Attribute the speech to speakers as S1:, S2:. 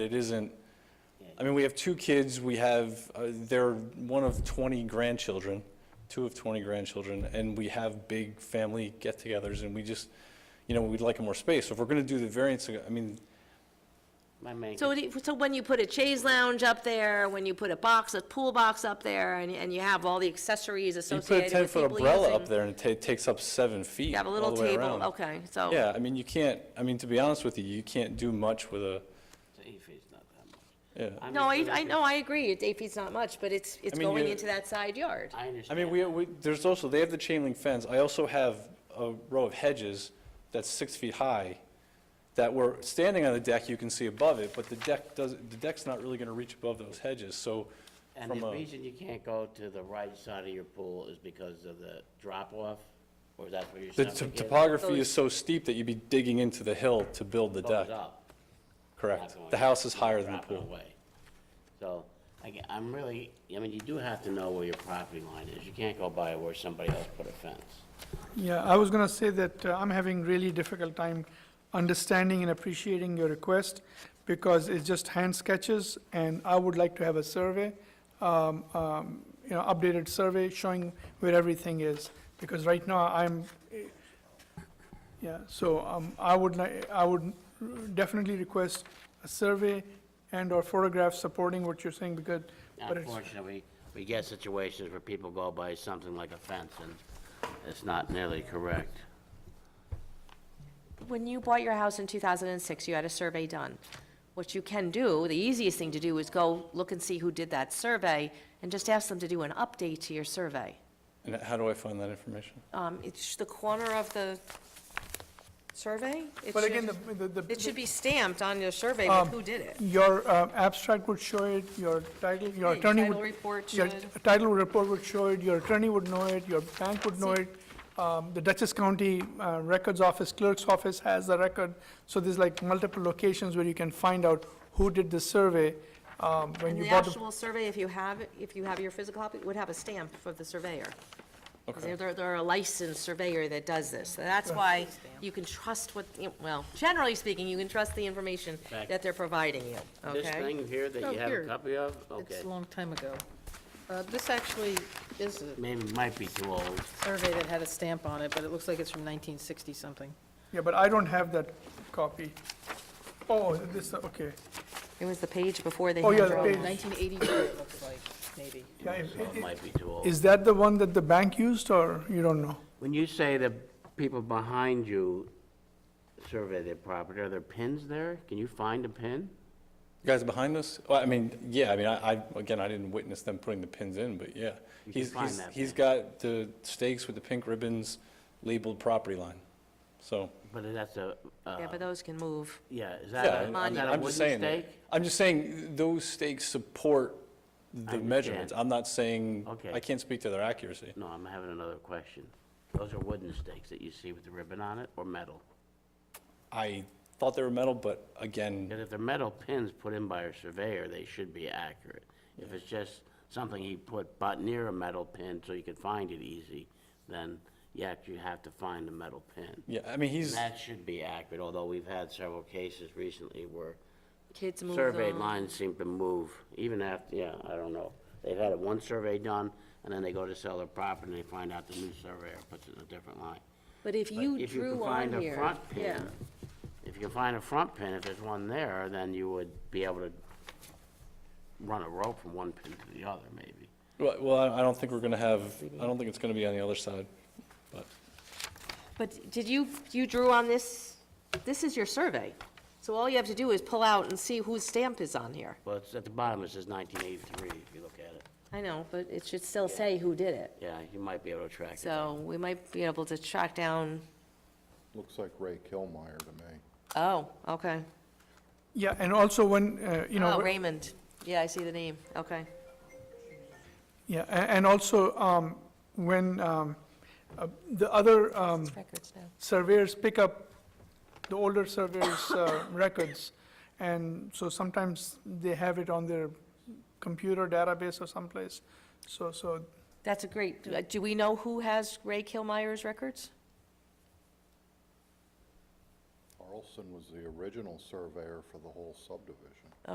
S1: It isn't, I mean, we have two kids, we have, uh, they're one of 20 grandchildren, two of 20 grandchildren, and we have big family get-togethers, and we just, you know, we'd like more space. So if we're going to do the variance, I mean,
S2: My man.
S3: So,
S2: could-
S3: what do you- so when you put a chaise lounge up there, when you put a box, a pool box up there, and, and you have all the accessories
S1: you put a
S3: associated with
S1: 10-foot
S3: people
S1: umbrella up
S3: using-
S1: there and it ta- takes up seven feet
S3: You have a
S1: all
S3: little
S1: the way
S3: table,
S1: around.
S3: okay, so.
S1: Yeah, I mean, you can't, I mean, to be honest with you, you can't do much with a,
S2: If it's not that much.
S1: yeah.
S2: I'm
S3: No, I,
S2: just-
S3: I know, I agree, it's eight feet's not much, but it's, it's
S1: mean,
S3: going
S1: you-
S3: into that side yard.
S2: I
S1: I
S2: understand.
S1: mean, we, we, there's also, they have the chain link fence. I also have a row of hedges that's six feet high that were standing on the deck, you can see above it, but the deck does, the deck's not really gonna reach above those hedges, so
S2: And
S1: from
S2: the
S1: a,
S2: reason you can't go to the right side of your pool is because of the drop-off? Or is that where your
S1: the
S2: septic
S1: t-
S2: is?
S1: topography is so steep that you'd be digging into the hill to build the
S2: Goes
S1: deck.
S2: up, not
S1: Correct.
S2: going
S1: The
S2: down.
S1: house is
S2: You're
S1: higher than the
S2: dropping
S1: pool.
S2: away. So, I, ge- I'm really, I mean, you do have to know where your property line is. You can't go by where somebody else put a fence.
S4: Yeah, I was going to say that uh, I'm having really difficult time understanding and appreciating your request because it's just hand sketches and I would like to have a survey, um, um, you know, updated survey showing where everything is. Because right now I'm, eh, yeah, so um, I would, li- I would definitely request a survey and/or photographs supporting what you're saying because, but it's,
S2: Unfortunately, we get situations where people go by something like a fence, and it's not nearly correct.
S3: When you bought your house in 2006, you had a survey done. What you can do, the easiest thing to do is go look and see who did that survey and just ask them to do an update to your survey.
S1: And how do I find that information?
S3: Um, it's the corner of the survey. It
S4: but
S3: should-
S4: again, the- the. the-
S3: It should be stamped on your survey with
S4: Um,
S3: who did it.
S4: Your uh, abstract would show it, your title, your
S3: Yeah,
S4: attorney would...
S3: title report
S4: Your
S3: should.
S4: title report would show it, your attorney would know it, your bank would know it. um, The Dutchess County uh, Records Office, Clerk's Office has the record. So there's like multiple locations where you can find out who did the survey um, when
S3: And
S4: you
S3: the
S4: bought the...
S3: actual survey, if you have, if you have your physical copy, would have a stamp for the surveyor. 'Cause
S1: Okay.
S3: They're, they're a licensed surveyor that does this. So that's why you can trust what, you know, well, generally speaking, you can trust the information
S2: Back.
S3: that they're providing you, okay?
S2: This thing here that
S5: Oh,
S2: you have a
S5: here.
S2: copy of, okay,
S5: It's a long time ago. Uh, This actually is a
S2: maybe it might be too old.
S5: survey that had a stamp on it, but it looks like it's from 1960-something.
S4: Yeah, but I don't have that copy. Oh, this, okay.
S3: It was the page before they
S4: Oh,
S3: had
S4: yeah,
S3: their
S4: the
S3: own.
S4: page.
S5: 1982, it looks like, maybe.
S4: Yeah, it-
S2: so
S4: it-
S2: it might be too old.
S4: Is that the one that the bank used, or you don't know?
S2: When you say the people behind you survey their property, are there pins there? Can you find a pin?
S1: You guys behind us? Well, I mean, yeah, I mean, I, I, again, I didn't witness them putting the pins in, but yeah.
S2: You can
S1: He's,
S2: find
S1: he's,
S2: that
S1: he's
S2: pin.
S1: got the stakes with the pink ribbons labeled property line. So,
S2: But that's a, uh,
S3: Yeah, but those can move.
S2: yeah,
S1: yeah,
S2: is that, a-
S1: I-
S2: is
S1: I'm,
S2: that a
S1: I'm
S2: wooden
S1: just saying, that-
S2: stake?
S1: I'm just saying those stakes support the
S2: understand.
S1: measurements. I'm not saying,
S2: Okay.
S1: I can't speak to their accuracy.
S2: No, I'm having another question. Those are wooden stakes that you see with the ribbon on it, or metal?
S1: I thought they were metal, but again,
S2: Because if they're metal pins put in by a surveyor, they should be accurate. If it's just something he put but near a metal pin so you could find it easy, then you actually have to find the metal pin.
S1: yeah, I mean, he's,
S2: That should be accurate, although we've had several cases recently where
S3: Kids move
S2: survey
S3: them.
S2: lines seem to move, even after, yeah, I don't know. They've had one survey done, and then they go to sell their property, and they find out the new surveyor puts in a different line.
S3: But if
S2: But
S3: you
S2: if you
S3: drew
S2: can
S3: on
S2: find a
S3: here,
S2: front
S3: yeah.
S2: pin, if you can find a front pin, if there's one there, then you would be able to run a rope from one pin to the other, maybe.
S1: well, well, I I don't think we're gonna have, I don't think it's gonna be on the other side, but.
S3: But did you, you drew on this, this is your survey. So all you have to do is pull out and see whose stamp is on here.
S2: Well, it's at the bottom, it says 1983, if you look at it.
S3: I know, but it should still say who did it.
S2: Yeah, you might be able to track it.
S3: So we might be able to track down,
S6: Looks like Ray Kilmeyer to me.
S3: oh, okay.
S4: Yeah, and also when, uh, you know...
S3: Oh, Raymond. Yeah, I see the name. Okay.
S4: Yeah, a- and also, um, when um, uh, the other um,
S3: Records now.
S4: surveyors pick up the older surveyors' uh, records, and so sometimes they have it on their computer database or someplace, so, so,
S3: That's a great, do- do we know who has Ray Kilmeyer's records?
S6: Carlson was the original surveyor for the whole subdivision.